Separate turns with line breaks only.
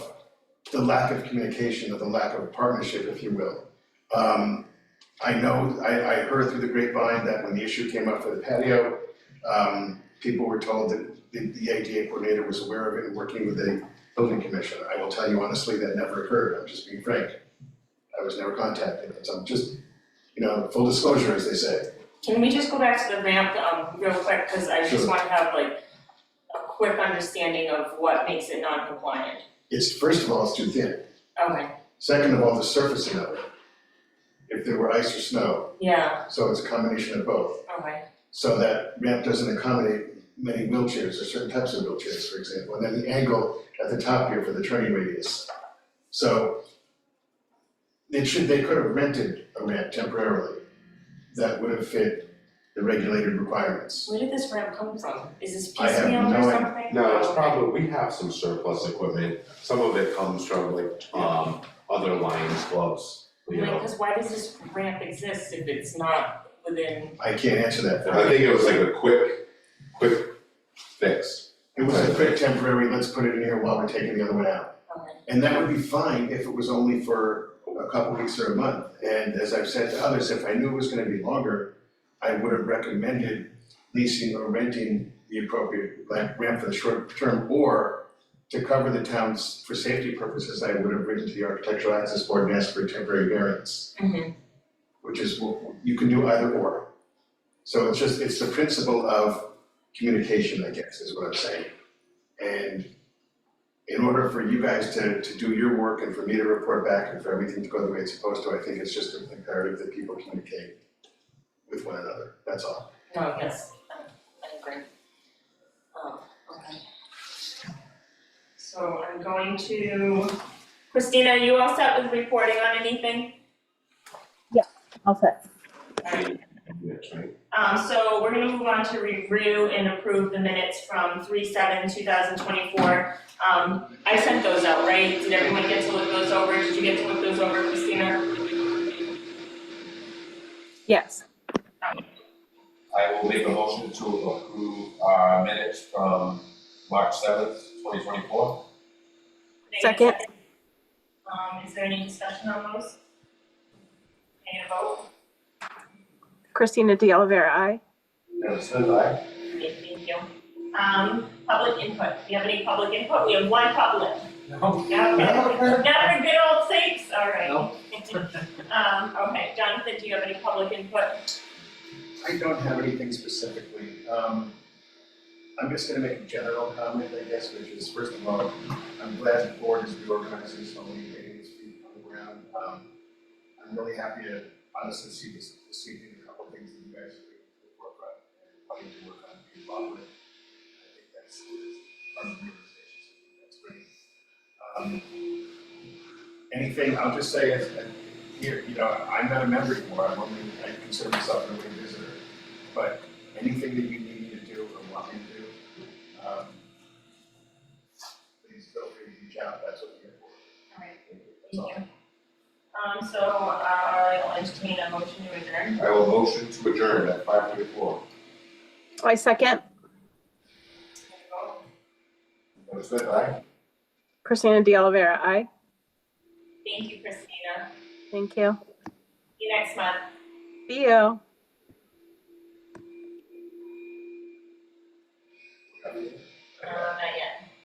the lack of communication or the lack of partnership, if you will. Um, I know, I, I heard through the grapevine that when the issue came up for the patio, um, people were told that the, the ADA coordinator was aware of it and working with the building commissioner. I will tell you honestly, that never occurred, I'm just being frank. I was never contacted, so I'm just, you know, full disclosure, as they say.
Can we just go back to the ramp, um, real quick, cause I just
Sure.
wanna have like a quick understanding of what makes it non-compliant.
It's, first of all, it's too thin.
Okay,
Second of all, the surfacing of it. If there were ice or snow,
yeah,
so it's a combination of both.
okay,
so that ramp doesn't accommodate many wheelchairs or certain types of wheelchairs, for example, and then the angle at the top here for the turning radius. So they should, they could have rented a ramp temporarily that would have fit the regulated requirements.
where did this ramp come from? Is this
I have
piecemeal or
no
something?
No, it's
Okay.
probably, we have some surplus equipment, some of it comes from like, um, other Lions clubs, you
uh,
Like,
know.
cause why does this ramp exist if it's not within,
I can't answer that for
I
you.
think it was like a quick, quick fix.
It was a quick temporary, let's put it in here while we're taking the other one out.
okay,
And that would be fine if it was only for a couple weeks or a month. And as I've said to others, if I knew it was gonna be longer, I would have recommended leasing or renting the appropriate lamp- ramp for the short term or to cover the towns for safety purposes, I would have written to the Architectural Access Board and asked for a temporary variance,
mhm,
which is, what- you can do either or. So it's just, it's the principle of communication, I guess, is what I'm saying. And in order for you guys to, to do your work and for me to report back and for everything to go the way it's supposed to, I think it's just imperative that people communicate with one another, that's all.
no, yes, I I agree. Um, okay. So I'm going to, Christina, are you all set with reporting on anything?
I'll say.
Yes, right?
Um, so we're gonna move on to review and approve the minutes from three seven two thousand twenty-four. Um, I sent those out, right? Did everyone get to look those over? Did you get to look those over, Christina?
Yes.
I will make a motion to approve our minutes from March seventh, twenty twenty-four.
Second.
Um, is there any discussion on those? Any vote?
Christina De Oliveira, aye.
And since I,
Okay, thank you. Um, public input. Do you have any public input? We have one public.
No.
No, not for good old sakes, all right. Um, okay, Jonathan, do you have any public input?
I don't have anything specifically, um, I'm just gonna make a general comment, I guess, which is, first of all, I'm glad the board is reorganizing so many meetings, people on the ground. Um, I'm really happy to honestly see this, this evening, a couple of things that you guys are doing to work on, and probably to work on, be involved with. I think that's, that's part of the organization, so I think that's great. Um, anything, I'll just say, as, as, here, you know, I'm not a member anymore, I'm only, I consider myself an away visitor. But anything that you need me to do or want me to do, um, please feel free to reach out, that's what we're here for.
All right,
That's all.
thank you. Um, so, uh, I'll entertain a motion to adjourn.
I will motion to adjourn at five thirty-four.
I second.
That's good, right?
Christina De Oliveira, aye.
Thank you, Christina.
Thank you.
See you next month.
See you.
Uh, not yet.